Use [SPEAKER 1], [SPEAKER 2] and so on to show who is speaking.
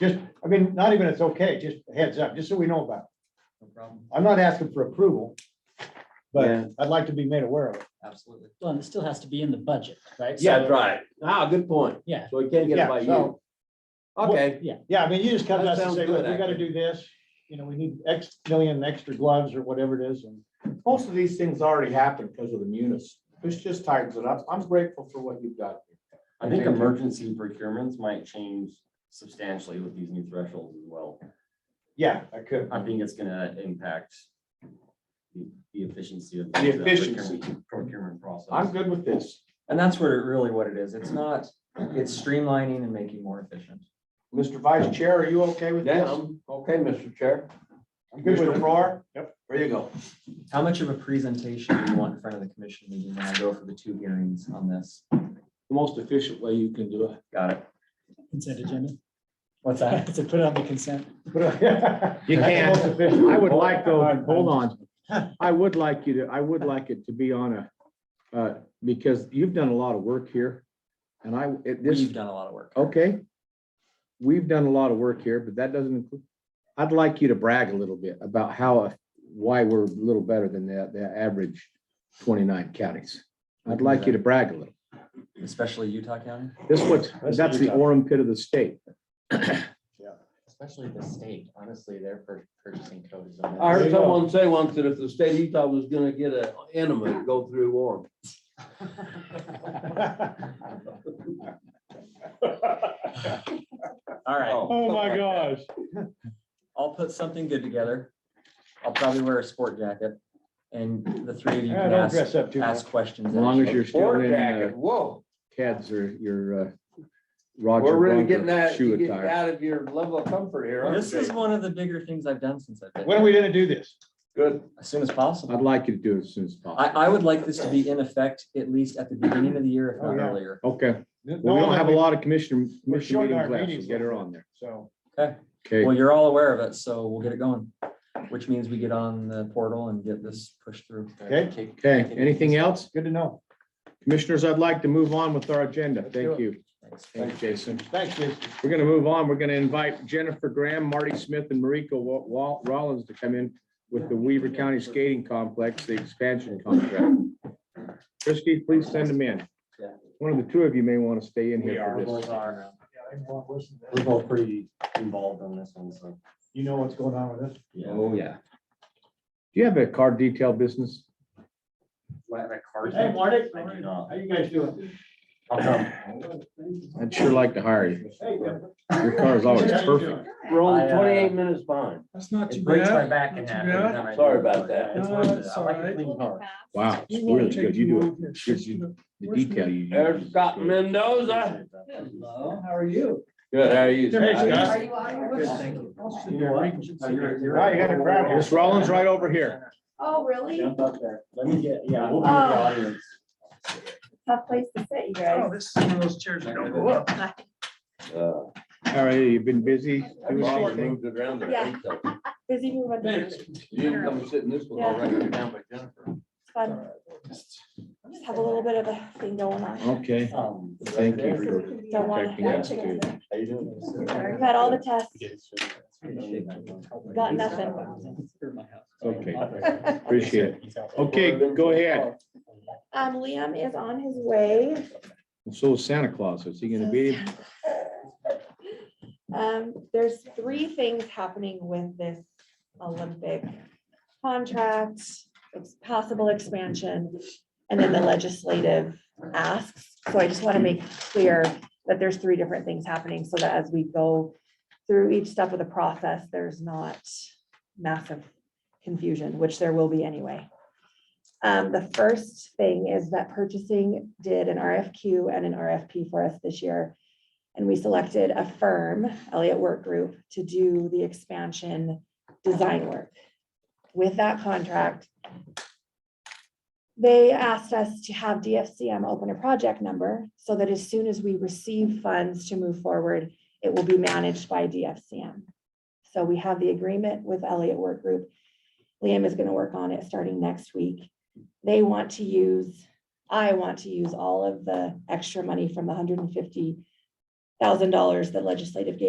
[SPEAKER 1] Just, I mean, not even it's okay, just heads up, just so we know about it.
[SPEAKER 2] No problem,
[SPEAKER 1] I'm not asking for approval,
[SPEAKER 3] Yeah.
[SPEAKER 1] but I'd like to be made aware of it.
[SPEAKER 2] absolutely.
[SPEAKER 4] Well, and it still has to be in the budget, right?
[SPEAKER 3] Yeah,
[SPEAKER 4] So-
[SPEAKER 3] that's right. Ah, good point.
[SPEAKER 4] Yeah,
[SPEAKER 3] So we can't get it by
[SPEAKER 1] Yeah,
[SPEAKER 3] you.
[SPEAKER 1] so,
[SPEAKER 3] Okay,
[SPEAKER 1] yeah, I mean, you just come to
[SPEAKER 3] That
[SPEAKER 1] us and
[SPEAKER 3] sounds
[SPEAKER 1] say, look,
[SPEAKER 3] good,
[SPEAKER 1] we gotta
[SPEAKER 3] actually.
[SPEAKER 1] do this, you know, we need X million extra gloves or whatever it is, and
[SPEAKER 5] Most of these things already happened because of the munis. This just tightens it up. I'm grateful for what you've done.
[SPEAKER 6] I think emergency procurements might change substantially with these new thresholds as well.
[SPEAKER 1] yeah, I could.
[SPEAKER 6] I think it's gonna impact the the efficiency of.
[SPEAKER 5] The efficiency.
[SPEAKER 6] procurement- Procurement
[SPEAKER 5] I'm
[SPEAKER 6] process.
[SPEAKER 5] good with this.
[SPEAKER 2] And that's where, really what it is. It's not, it's streamlining and making more efficient.
[SPEAKER 5] Mr. Vice Chair, are you okay with
[SPEAKER 3] yeah,
[SPEAKER 5] this?
[SPEAKER 3] I'm okay, Mr. Chair.
[SPEAKER 1] I'm good with
[SPEAKER 5] Mr.
[SPEAKER 1] it.
[SPEAKER 5] Farrar? Yep. There you go.
[SPEAKER 2] How much of a presentation do you want in front of the commission meeting when I go for the two hearings on this?
[SPEAKER 5] The most efficient way you can do it.
[SPEAKER 2] Got it.
[SPEAKER 4] consent agenda.
[SPEAKER 2] What's that?
[SPEAKER 4] To put it on the consent.
[SPEAKER 1] You
[SPEAKER 7] can. I would like though, hold on,
[SPEAKER 1] Huh.
[SPEAKER 7] I would like you to, I would like it to be on a, uh, because you've done a lot of work here. And I, it, this,
[SPEAKER 2] We've done a lot of work.
[SPEAKER 7] okay. We've done a lot of work here, but that doesn't include, I'd like you to brag a little bit about how, uh, why we're a little better than the, the average twenty-nine counties. I'd like you to brag a little.
[SPEAKER 2] Especially Utah County,
[SPEAKER 7] This what,
[SPEAKER 1] That's
[SPEAKER 7] that's the
[SPEAKER 1] Utah.
[SPEAKER 7] orum pit of the state.
[SPEAKER 8] Especially the state, honestly, their pur- purchasing code is.
[SPEAKER 3] I
[SPEAKER 1] There
[SPEAKER 3] heard
[SPEAKER 1] you go.
[SPEAKER 3] someone say once that if the state of Utah was gonna get an enema, it'd go through Orem.
[SPEAKER 2] all right.
[SPEAKER 3] Oh, my
[SPEAKER 1] gosh.
[SPEAKER 2] I'll put something good together. I'll probably wear a sport jacket and the three of you
[SPEAKER 1] Yeah,
[SPEAKER 2] can
[SPEAKER 1] Don't
[SPEAKER 2] ask,
[SPEAKER 1] dress up too much.
[SPEAKER 2] ask questions.
[SPEAKER 7] As long as you're still
[SPEAKER 3] Or
[SPEAKER 7] in, uh,
[SPEAKER 3] jacket, whoa,
[SPEAKER 7] Keds or your, uh,
[SPEAKER 3] we're
[SPEAKER 7] Roger
[SPEAKER 3] really getting
[SPEAKER 7] Bronco
[SPEAKER 3] that,
[SPEAKER 7] shoe
[SPEAKER 3] getting
[SPEAKER 7] attire.
[SPEAKER 3] out of your level of comfort here. aren't
[SPEAKER 2] This is
[SPEAKER 3] you?
[SPEAKER 2] one of the bigger things I've done since I've been.
[SPEAKER 1] When are we gonna do this?
[SPEAKER 3] Good.
[SPEAKER 2] As soon as
[SPEAKER 7] I'd
[SPEAKER 2] possible.
[SPEAKER 7] like you to do it as soon as
[SPEAKER 2] I,
[SPEAKER 7] possible.
[SPEAKER 2] I would like this to be in effect at least at the beginning of the year, if
[SPEAKER 1] Oh,
[SPEAKER 2] not
[SPEAKER 1] yeah.
[SPEAKER 2] earlier.
[SPEAKER 7] Okay,
[SPEAKER 1] No,
[SPEAKER 7] well, we don't
[SPEAKER 1] that
[SPEAKER 7] have a lot of commissioner,
[SPEAKER 1] We're
[SPEAKER 7] commissioner
[SPEAKER 1] short on
[SPEAKER 7] meetings
[SPEAKER 1] our
[SPEAKER 7] left,
[SPEAKER 1] meetings.
[SPEAKER 7] so get her on there.
[SPEAKER 1] So,
[SPEAKER 7] Okay,
[SPEAKER 2] Well, you're all aware of it, so we'll get it going, which means we get on the portal and get this pushed through.
[SPEAKER 1] okay,
[SPEAKER 7] okay, anything else?
[SPEAKER 1] good to know.
[SPEAKER 7] Commissioners, I'd like to move on with our agenda.
[SPEAKER 1] Let's do
[SPEAKER 7] Thank
[SPEAKER 1] it.
[SPEAKER 7] you.
[SPEAKER 2] Thanks.
[SPEAKER 7] Thanks, Jason.
[SPEAKER 1] Thanks, Jason.
[SPEAKER 7] We're gonna move on. We're gonna invite Jennifer Graham, Marty Smith, and Mariko Wa- Wa- Rollins to come in with the Weaver County Skating Complex, the expansion contract. Christie, please send them in. One of the two of you may want to stay in here for this.
[SPEAKER 2] Oh,
[SPEAKER 6] We're both pretty involved on this one, so.
[SPEAKER 1] You know what's going on with this?
[SPEAKER 6] Yeah.
[SPEAKER 3] Oh, yeah.
[SPEAKER 7] Do you have a car detail business?
[SPEAKER 6] Like that card.
[SPEAKER 1] Hey, Marty.
[SPEAKER 6] I do not. uh,
[SPEAKER 1] How you guys doing?
[SPEAKER 6] I'll come.
[SPEAKER 7] I'd sure like to hire you.
[SPEAKER 1] Hey,
[SPEAKER 7] Your car is always perfect.
[SPEAKER 3] We're
[SPEAKER 6] I,
[SPEAKER 3] only
[SPEAKER 6] uh,
[SPEAKER 3] twenty-eight minutes behind.
[SPEAKER 9] That's not too
[SPEAKER 6] It breaks my
[SPEAKER 9] bad.
[SPEAKER 6] back in
[SPEAKER 9] Not
[SPEAKER 6] half.
[SPEAKER 9] too
[SPEAKER 6] every
[SPEAKER 9] bad.
[SPEAKER 6] time I do
[SPEAKER 3] Sorry
[SPEAKER 6] it,
[SPEAKER 3] about
[SPEAKER 6] but
[SPEAKER 3] that.
[SPEAKER 6] it's
[SPEAKER 9] No,
[SPEAKER 6] worth it.
[SPEAKER 9] it's
[SPEAKER 6] I like a
[SPEAKER 9] alright.
[SPEAKER 6] clean car.
[SPEAKER 7] Wow, it's
[SPEAKER 9] We
[SPEAKER 7] really
[SPEAKER 9] won't take
[SPEAKER 7] good. You do it.
[SPEAKER 9] long here. It's
[SPEAKER 7] you-
[SPEAKER 9] just gonna-
[SPEAKER 7] The detail you.
[SPEAKER 3] There's Scott Mendoza.
[SPEAKER 2] Hello, how are you?
[SPEAKER 3] Good, how are you?
[SPEAKER 1] Hey, Scott.
[SPEAKER 3] Scott?
[SPEAKER 2] thank you.
[SPEAKER 6] You know what? You're- you're-
[SPEAKER 1] Now you gotta grab
[SPEAKER 7] Miss Rollins right over here.
[SPEAKER 10] Oh, really?
[SPEAKER 6] Jump up there. Let me get, yeah, we'll be in the
[SPEAKER 10] Oh.
[SPEAKER 6] audience.
[SPEAKER 10] Tough place to sit, you
[SPEAKER 9] Oh,
[SPEAKER 10] guys.
[SPEAKER 9] this is one of those chairs that don't go up.
[SPEAKER 3] Uh,
[SPEAKER 7] All right, you've been busy.
[SPEAKER 3] I've
[SPEAKER 7] doing
[SPEAKER 3] already
[SPEAKER 7] something.
[SPEAKER 3] moved it around there,
[SPEAKER 10] Yeah.
[SPEAKER 3] I think so.
[SPEAKER 10] Busy moving.
[SPEAKER 3] You didn't come sit in this one, I'll write it down by Jennifer.
[SPEAKER 10] It's fun. Just have a little bit of a thing going on.
[SPEAKER 7] Okay,
[SPEAKER 6] Um,
[SPEAKER 7] thank you for
[SPEAKER 10] Don't want
[SPEAKER 7] protecting us too.
[SPEAKER 10] to.
[SPEAKER 3] How you doing?
[SPEAKER 10] I've had all the tests. Got nothing.
[SPEAKER 7] Okay. Appreciate it. Okay, go ahead.
[SPEAKER 10] Um, Liam is on his way.
[SPEAKER 7] So is Santa Claus, is he gonna be?
[SPEAKER 10] Um, there's three things happening with this Olympic contract, ex- possible expansion, and then the legislative asks. So I just want to make clear that there's three different things happening so that as we go through each step of the process, there's not massive confusion, which there will be anyway. Um, the first thing is that purchasing did an RFQ and an RFP for us this year. And we selected a firm, Elliott Work Group, to do the expansion design work. With that contract, they asked us to have DFCM open a project number so that as soon as we receive funds to move forward, it will be managed by DFCM. So we have the agreement with Elliott Work Group. Liam is gonna work on it starting next week. They want to use, I want to use all of the extra money from the hundred and fifty thousand dollars that legislative gave